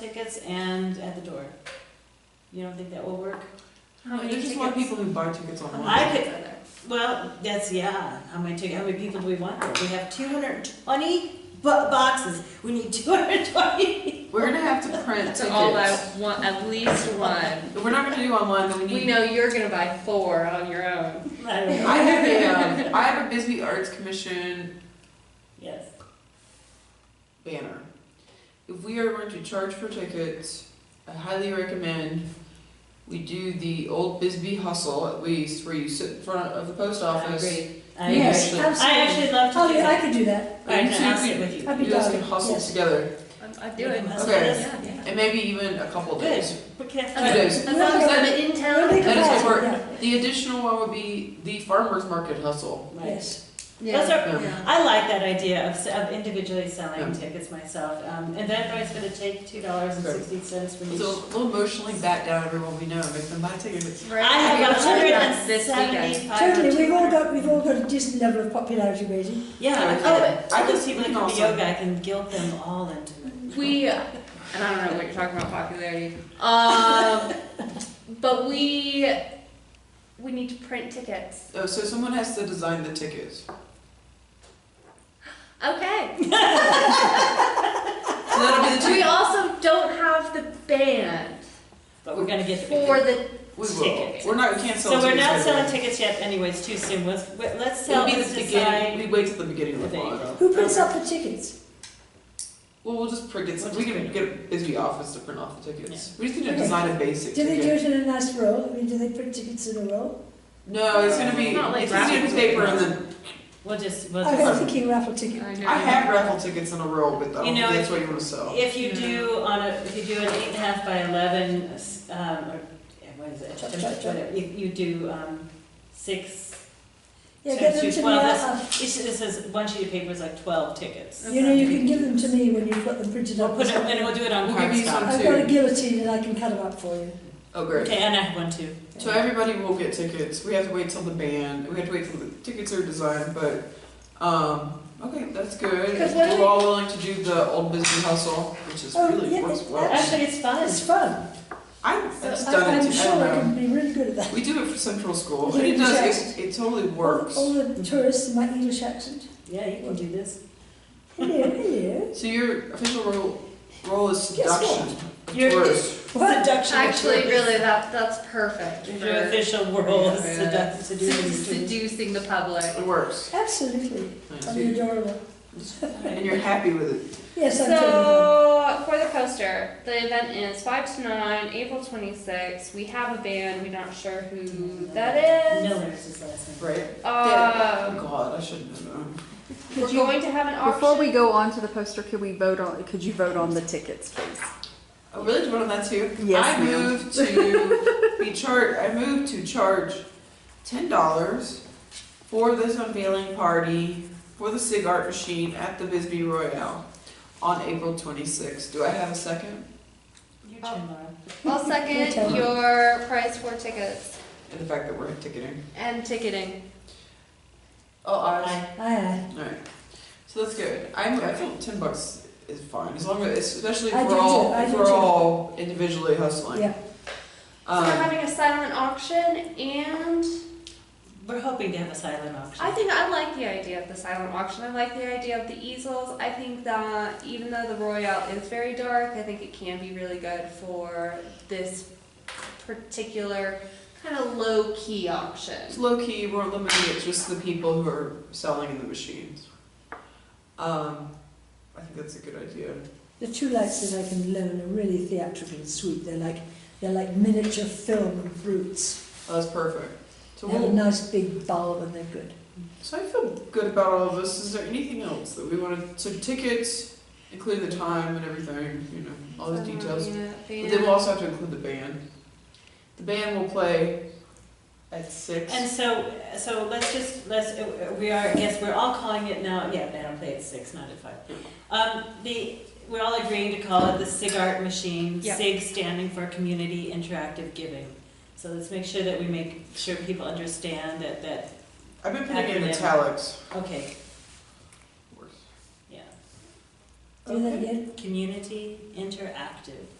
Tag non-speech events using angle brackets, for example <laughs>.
tickets and at the door. You don't think that will work? How many There's just a lot of tickets? people who buy tickets online. I could- Well, that's, yeah, how many tickets, how many people do we want there? We have two hundred and twenty bo- boxes, we need two hundred and twenty. We're gonna have to print tickets. To all out, one, at least one. If we're not gonna do online, then we We need. know you're gonna buy four on your own. I don't know, I have a, um, I have a Bisbee Arts Commission yes. banner. If we are going to charge for tickets, I highly recommend we do the old Bisbee hustle at least, where you sit in front of the post office. I Yeah. agree. I actually love to Oh, do yeah, I that. could do that. I You can two ask it can- with you. I'd be You guys down. can hustle yes. together, I, I do it. That's Okay. what it is. Yeah, yeah. and maybe even a couple Good. days. But can't- Two days. As long as I'm in town. Well, they could That is have it, work. yeah. The additional one would be the farmers market hustle. Right. Yes. Those Yeah. are, Yeah. I like that idea of, s- of individually selling Yeah. tickets myself. Um, Eventbrite's gonna take two dollars and sixty cents from each. So we'll emotionally back down everyone we know and make them buy tickets. Right. I have a hundred That's and this weekend. seventy-five. Totally, we've all got, we've all got a decent level of popularity rating. Yeah, Oh, I but- I those people that come to Also- yoga, I can guilt them all into it. We, and I don't know what you're talking about popularity. Um, <laughs> but we, we need to print tickets. Oh, so someone has to design the tickets. Okay. So that'll be the <laughs> We ticket. also don't have the band But we're gonna get the big for one. the, We will. tickets. We're not, we can't sell So we're tickets not right selling away. tickets yet anyway, it's too soon. Let's, we- let's It'll sell, be let's the beginning, decide. we wait till the beginning of the There you month. Who prints up the tickets? Well, we'll just print, We'll we just can print get a busy office to print off the tickets. We just need to design a basic Do they do ticket. it in a nice roll? I mean, do they print tickets in a roll? No, it's gonna be, Not like it's gonna be raffles. paper and then, We'll just, we'll I was just, thinking raffle ticket. I know. I have raffle tickets in a row, but I You don't know, think that's if- what you wanna sell. if you do on a, if you do an eight and a half by eleven, s- um, or, yeah, what is Chop, chop, it? chop. Whatever, you, you do, um, six, Yeah, So get them she's to me. one of I- it says, one sheet of paper is like twelve tickets. I- You know, you can give them to me when you've got them printed We'll up. put it, and we'll do it on We'll give you cardstock. some- I've got a guillotine and I can cut them up for you. Oh, great. Okay, and I have one too. So everybody will get tickets. We have to wait till the band. We have to wait till the tickets are designed. But um, okay, that's good. 'Cause what We're do- all willing to do the old business hustle, which is Oh, really yeah, works it's- well. Actually, it's fun. It's fun. I that's I- done I'm it. sure I I Um, don't can be really good at know. that. We do it for Central School, Is and it it does. exact? It, it totally works. All the tourists in my English accent. Yeah, you can do this. <laughs> Hello, hello. So your official role role is Guess what? seduction. of You're- tourists. What? Seduction. of Actually, tourists. really, that, that's perfect Your for official role is Yeah, sedu- seducing. seducing the public. It works. Absolutely. I'm adorable. And you're happy with it. Yes, I'm totally. So, for the poster, the event is 5 to 9, April 26th. We have a band, we're not sure who that is. Miller's his last name. Right. oh Um, God, I shouldn't have known. we're going to have an auction. Before we go on to the poster, could we vote on, could you vote on the tickets, please? I Oh, really do want that too. Yes, I ma'am. moved <laughs> to be charged. I moved to charge ten dollars for this unveiling party for the Sig Art Machine at the Bisbee Royale on April twenty sixth. Do I have a second? Your Oh. turn, Laura. I'll second your price for tickets And the fact that we're ticketing. and ticketing. Oh, Aye. Aye, All right. So that's good. I'm. I feel ten bucks is fine as long as, especially if I we're do all too, I if do we're too. all individually aye. hustling. Yeah. So we're Um, having a silent auction, and We're hoping to have a silent auction. I think I like the idea of the silent auction. I like the idea of the easels. I think that even though the Royale is very dark, I think it can be really good for this particular kind of low key auction. It's low key, we're limiting it just to the people who are selling in the machines. Um, I think that's a good idea. The two lights that I can loan are really theatrical and sweet. They're like they're like miniature film brutes. Oh, That's perfect. So, They have a we'll, nice big bulb and they're good. so I feel good about all of this. Is there anything else that we want to, so tickets, including the time and everything, you know, all the details. But then we'll also have to include the band. The band will play at six. And so, so let's just, let's, uh, we are, yes, we're all calling it now, yeah, they don't play at six, not at five. Um, the, we're all agreeing to call it the SIG Art Machine, Yeah. SIG standing for Community Interactive Giving. So let's make sure that we make sure people understand that, that, I've been putting it in Acronym. italics. okay, yeah. Do that again. Community interactive.